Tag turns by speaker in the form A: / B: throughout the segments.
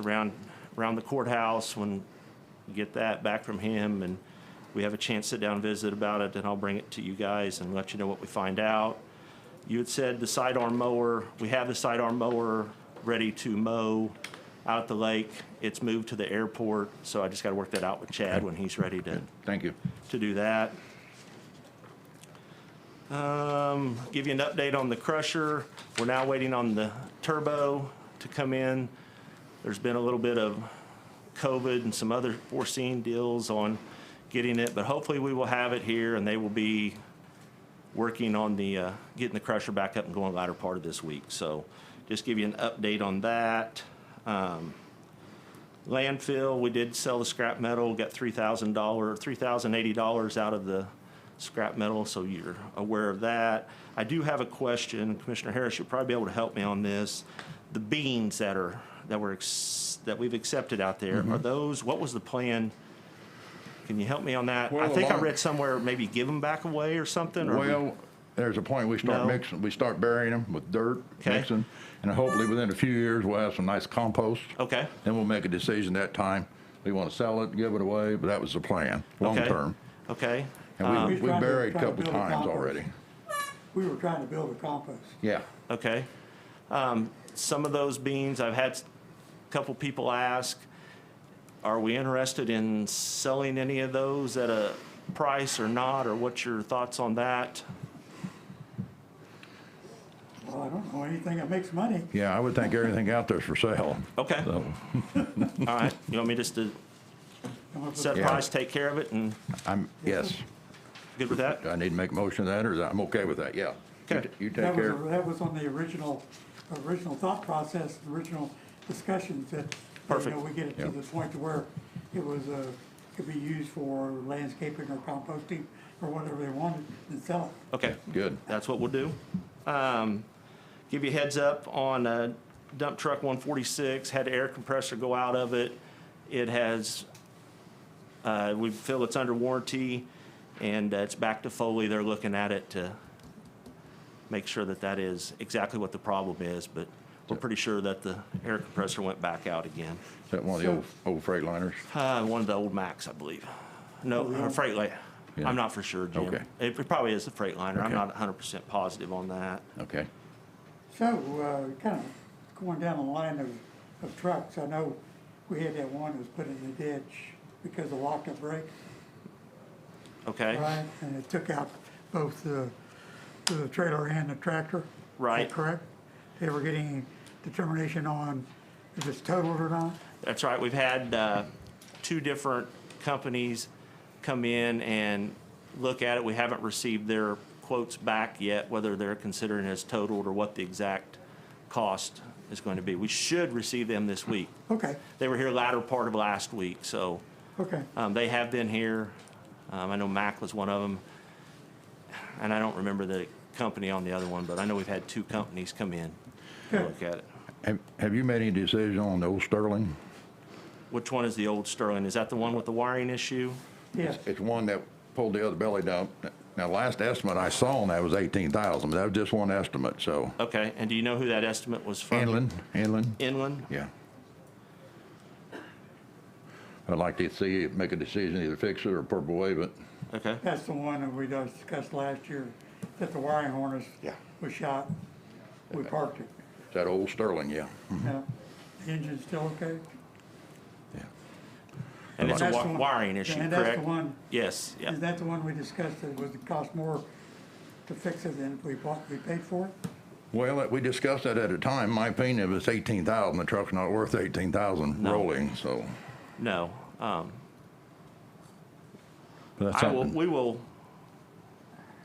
A: around, around the courthouse when we get that back from him and we have a chance sit down and visit about it, then I'll bring it to you guys and let you know what we find out. You had said the sidearm mower, we have the sidearm mower ready to mow out at the lake. It's moved to the airport, so I just gotta work that out with Chad when he's ready to,
B: Thank you.
A: to do that. Um, give you an update on the crusher. We're now waiting on the turbo to come in. There's been a little bit of COVID and some other foreseen deals on getting it, but hopefully we will have it here and they will be working on the, uh, getting the crusher back up and going latter part of this week. So just give you an update on that. Um, landfill, we did sell the scrap metal, got three thousand dollar, three thousand eighty dollars out of the scrap metal, so you're aware of that. I do have a question, Commissioner Harris, you'll probably be able to help me on this. The beans that are, that were, ex- that we've accepted out there,
B: Mm-hmm.
A: are those, what was the plan? Can you help me on that? I
B: Well,
A: think I
B: along-
A: read somewhere maybe give them back away or something, or we-
B: Well, there's a point we
A: No.
B: start mixing, we start burying them with dirt,
A: Okay.
B: mixing, and hopefully within a few years, we'll have some nice compost.
A: Okay.
B: Then we'll make a decision that time. We want to sell it, give it away, but that was the plan, long
A: Okay. Um,
B: term.
A: Okay,
B: And we,
C: He's
B: we
C: trying to-
B: buried a
C: trying to
B: couple
C: build a
B: times
C: compost.
B: already.
C: We were trying to build a compost.
B: Yeah.
A: okay. Um, Some of those beans, I've had a couple people ask, are we interested in selling any of those at a price or not, or what's your thoughts on that?
C: Well, I don't know anything that makes money.
B: Yeah, I would think everything out there's for sale.
A: Okay, all
B: So,
A: right, you want me just to
C: Come up with-
A: set a
B: Yeah.
A: price, take care of it, and
B: I'm, yes,
A: good with that?
B: Do I need to make a motion to that, or is that, I'm okay with that, yeah. You
A: Okay.
B: t- You take
C: That was,
B: care.
C: a- that was on the original, original thought process, the original discussions that, you
A: Perfect.
C: know, we get it
B: Yeah.
C: to the point to where it was, uh, could be used for landscaping or composting or whatever they wanted and sell it.
A: Okay.
B: Good.
A: That's what we'll do. Um, give you a heads up on uh, dump truck 146, had air compressor go out of it. It has, uh, we feel it's under warranty and uh, it's back to Foley. They're looking at it to make sure that that is exactly what the problem is, but we're pretty sure that the air compressor went back out again.
B: Is that one of the
C: So-
B: old, old Freightliners?
A: Uh, one of the old Macs, I believe. No,
C: Oh, yeah.
A: uh, Freightliner.
B: Yeah.
A: I'm not for sure, Jim.
B: Okay.
A: It it probably is the Freightliner. I'm
B: Okay.
A: not 100% positive on that.
B: Okay.
C: So, uh, kind of going down the line of, of trucks, I know we had that one that was put in the ditch because of lock and brake.
A: Okay?
C: Right, and it took out both the, the trailer and the tractor. Is that
A: Right.
C: Correct? They were getting determination on if it's totaled or not?
A: That's right. We've had uh, two different companies come in and look at it. We haven't received their quotes back yet, whether they're considering it as totaled or what the exact cost is going to be. We should receive them this week.
C: Okay,
A: They were here latter part of last week, so
C: okay.
A: Um, they have been here. Um, I know Mac was one of them. And I don't remember the company on the other one, but I know we've had two companies come in to
C: Okay.
A: look at it.
B: Have, have you made any decision on the old Sterling?
A: Which one is the old Sterling? Is that the one with the wiring issue?
C: Yes,
B: It's one that pulled the other belly down. Now, last estimate I saw on that was eighteen thousand, but that was just one estimate, so.
A: Okay, and do you know who that estimate was from?
B: Inland, inland,
A: Inland?
B: yeah. I'd like to see, make a decision, either fix it or purple wave it.
A: Okay,
C: that's the one that we discussed last year, that the wiring harness
B: Yeah.
C: was shot. We parked it.
B: Is that old Sterling, yeah?
A: Mm-hmm.
C: Now, the engine's still okay?
B: Yeah.
A: and it's a
C: That's
A: wa-
C: the one-
A: wiring issue,
C: And
A: correct?
C: that's the one,
A: Yes, yeah.
C: is that the one we discussed that would cost more to fix it than if we bought, we paid for it?
B: Well, we discussed that at a time. My opinion, if it's eighteen thousand, the truck's not worth eighteen thousand
A: No.
B: rolling, so.
A: No. Um,
B: But that's
A: I will,
B: something.
A: we will,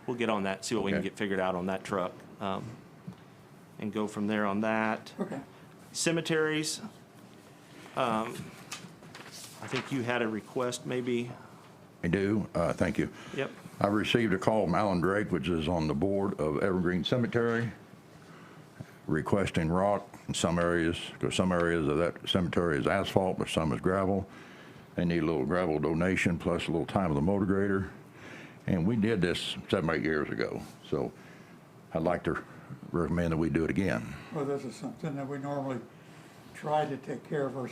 A: we'll get on that, see what we can
B: Okay.
A: get figured out on that truck. um, And go from there on that.
C: Okay.
A: cemeteries. um, I think you had a request, maybe,
B: I do, uh, thank you.
A: yep,
B: I received a call from Alan Drake, which is on the board of Evergreen Cemetery, requesting rock in some areas, because some areas of that cemetery is asphalt, but some is gravel. They need a little gravel donation plus a little time of the motor grader. And we did this seven, eight years ago, so I'd like to recommend that we do it again.
C: Well, this is something that we normally try to take care of ourselves.